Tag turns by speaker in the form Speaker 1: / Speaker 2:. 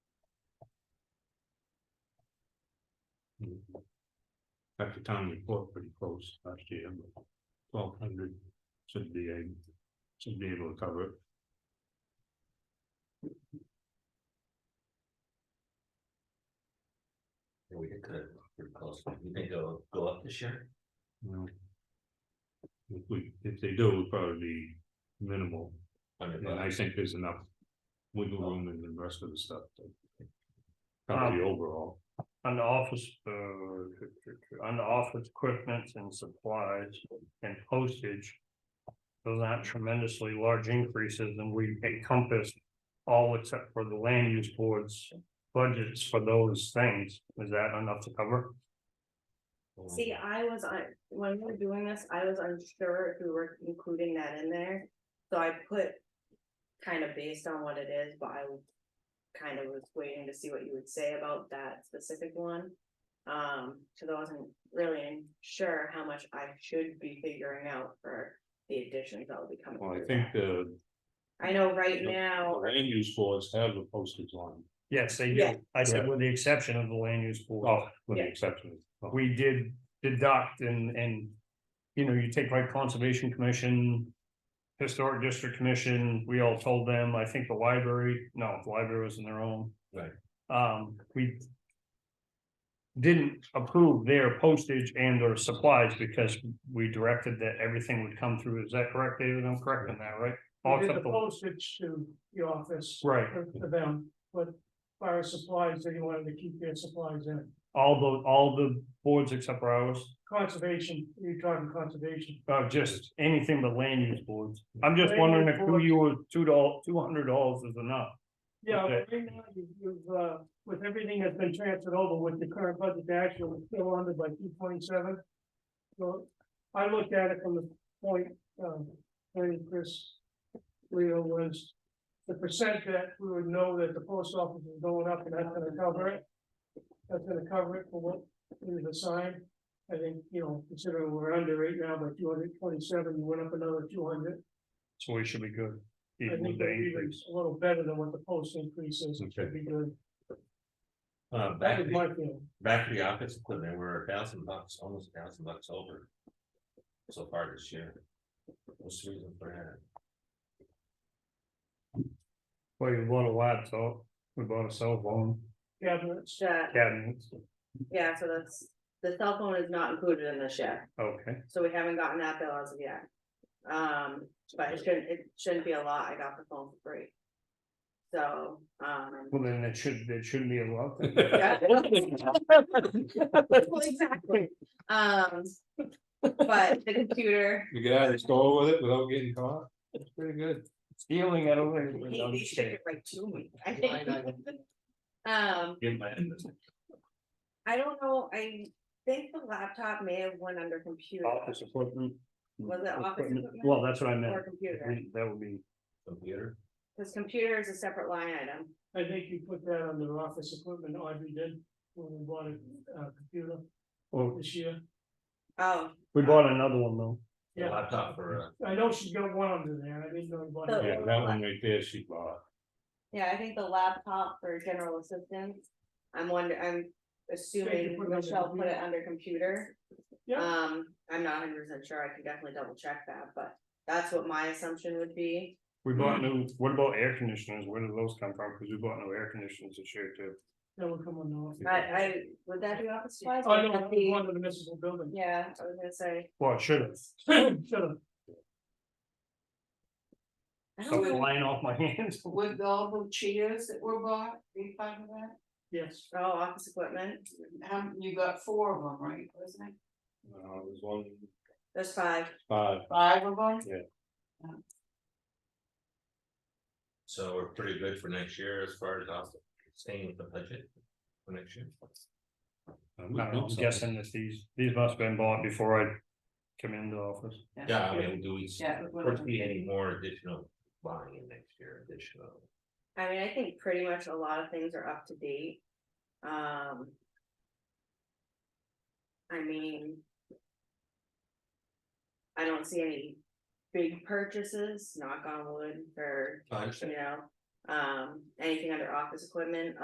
Speaker 1: At the town report pretty close last year, but twelve hundred should be able, should be able to cover it.
Speaker 2: Yeah, we could, cut it pretty close, you think it'll go up this year?
Speaker 1: you know. If we, if they do, it'll probably be minimal,
Speaker 2: Hundred
Speaker 1: and
Speaker 2: bucks.
Speaker 1: I think there's enough wiggle room in the rest of the stuff. to Cover
Speaker 3: Um,
Speaker 1: the overall,
Speaker 4: On the office, uh, on the office equipment and supplies and postage. Those aren't tremendously large increases and we encompassed all except for the land use boards budgets for those things. Is that enough to cover?
Speaker 5: See, I was on, when we were doing this, I was unsure if we were including that in there, so I put. Kind of based on what it is, but I was kind of was waiting to see what you would say about that specific one. Um, cause I wasn't really sure how much I should be figuring out for the additions that will be coming.
Speaker 1: well, I
Speaker 5: through
Speaker 1: think
Speaker 5: that.
Speaker 1: the
Speaker 5: I know right
Speaker 1: Yep.
Speaker 5: now,
Speaker 1: land use boards have a postage line,
Speaker 4: Yes, they
Speaker 5: Yeah.
Speaker 4: do. I said with the exception of the land use board.
Speaker 1: oh, with the
Speaker 5: Yeah.
Speaker 1: exception of.
Speaker 4: we did deduct and, and, you know, you take like Conservation Commission, Historic District Commission, we all told them, I think the library, no, the library was in their own.
Speaker 2: Right.
Speaker 4: Um, we didn't approve their postage and or supplies because we directed that everything would come through. Is that correct, David? I'm correct in that, right? All
Speaker 3: We did the
Speaker 4: except the-
Speaker 3: postage to the office.
Speaker 4: Right,
Speaker 3: For for them, but fire supplies, they wanted to keep their supplies in.
Speaker 4: all the, all the boards except for ours.
Speaker 3: Conservation, you're talking conservation.
Speaker 4: Uh, just anything but land use boards. I'm just wondering if two you were two dollars, two hundred dollars is enough.
Speaker 3: Yeah,
Speaker 4: Okay.
Speaker 3: right now, you- you've, uh, with everything that's been transferred over with the current budget, the actual is still under by two twenty-seven. So I looked at it from the point, um, when Chris Leo was the percent that we would know that the post office is going up and that's gonna cover it. That's gonna cover it for what is assigned. I think, you know, considering we're under right now by two hundred twenty-seven, we went up another two hundred.
Speaker 4: So we should be good.
Speaker 3: I
Speaker 4: Even with
Speaker 3: think
Speaker 4: the
Speaker 3: we're even
Speaker 4: increase.
Speaker 3: a little better than what the post increase is, it should be good.
Speaker 2: Uh,
Speaker 3: That
Speaker 2: back,
Speaker 3: was
Speaker 2: to the-
Speaker 3: my feeling.
Speaker 2: back to the office equipment, we're a thousand bucks, almost a thousand bucks over. So far this year. What's the reason for
Speaker 4: Well, you bought a laptop, we bought a cell phone,
Speaker 3: Cabinets,
Speaker 5: that,
Speaker 4: cabinets,
Speaker 5: uh, yeah, so that's, the cell phone is not included in the shift.
Speaker 4: okay.
Speaker 5: So we haven't gotten that bill as of yet. Um, but it shouldn't, it shouldn't be a lot, I got the phone for free. So, um.
Speaker 4: Well, then it should, it shouldn't be a lot. then.
Speaker 5: yeah. Well, Exactly. Um, but the computer,
Speaker 1: You get out of the store with it without getting caught, it's pretty good.
Speaker 4: Stealing it away.
Speaker 5: I
Speaker 4: No,
Speaker 5: hate
Speaker 4: I'm
Speaker 5: they
Speaker 4: just
Speaker 5: ship
Speaker 4: kidding.
Speaker 5: it right to me. I
Speaker 2: Why not?
Speaker 5: think. Um,
Speaker 2: that?
Speaker 5: I don't know, I think the laptop may have went under computer.
Speaker 4: Office equipment.
Speaker 5: Was it office
Speaker 4: Equipment.
Speaker 5: equipment?
Speaker 4: Well, that's what I
Speaker 5: Or
Speaker 4: meant.
Speaker 5: computer,
Speaker 4: That would be,
Speaker 2: Computer,
Speaker 5: because computer is a separate line item.
Speaker 3: I think you put that on the office equipment, Audrey did, when we bought a, uh computer
Speaker 4: oh,
Speaker 3: this year.
Speaker 5: Oh,
Speaker 4: we bought another one though.
Speaker 2: the
Speaker 3: Yeah.
Speaker 2: laptop for, uh,
Speaker 3: I know she's got one under there, I didn't know about
Speaker 5: So-
Speaker 1: Yeah,
Speaker 3: it.
Speaker 1: that one right there, she bought.
Speaker 5: Yeah, I think the laptop for general assistance, I'm wonder, I'm assuming
Speaker 3: put it under
Speaker 5: Michelle put it
Speaker 3: computer.
Speaker 5: under computer.
Speaker 3: Yeah.
Speaker 5: Um, I'm not hundred percent sure, I can definitely double check that, but that's what my assumption would be.
Speaker 4: We bought new, what about air conditioners? Where did those come from? Cause we bought new air conditioners this year too.
Speaker 3: That will come on the office.
Speaker 5: I, I, would that be office supplies?
Speaker 3: Oh,
Speaker 5: Would
Speaker 3: no,
Speaker 5: that
Speaker 3: that was
Speaker 5: be-
Speaker 3: one of the municipal building.
Speaker 5: Yeah, I was gonna say.
Speaker 4: Well, it should have.
Speaker 3: Shut up.
Speaker 5: I
Speaker 4: So
Speaker 5: don't know.
Speaker 4: flying off my hands.
Speaker 6: With all the chairs that were bought, are you finding that?
Speaker 3: Yes,
Speaker 5: Oh, office equipment,
Speaker 6: How, you got four of them, right, wasn't it?
Speaker 1: Uh, it was one,
Speaker 5: there's five,
Speaker 1: five,
Speaker 6: Five of them?
Speaker 2: so we're pretty good for next year as far as also staying with the budget. For next year.
Speaker 1: I
Speaker 4: I don't know, I'm guessing that these, these must have been bought before I come into office.
Speaker 2: Yeah, I mean, do we,
Speaker 6: Yeah.
Speaker 2: foresee any more additional buying in next year, additional?
Speaker 5: I mean, I think pretty much a lot of things are up to date. Um. I mean. I don't see any big purchases, knock on wood, or, you know, um, anything under office equipment,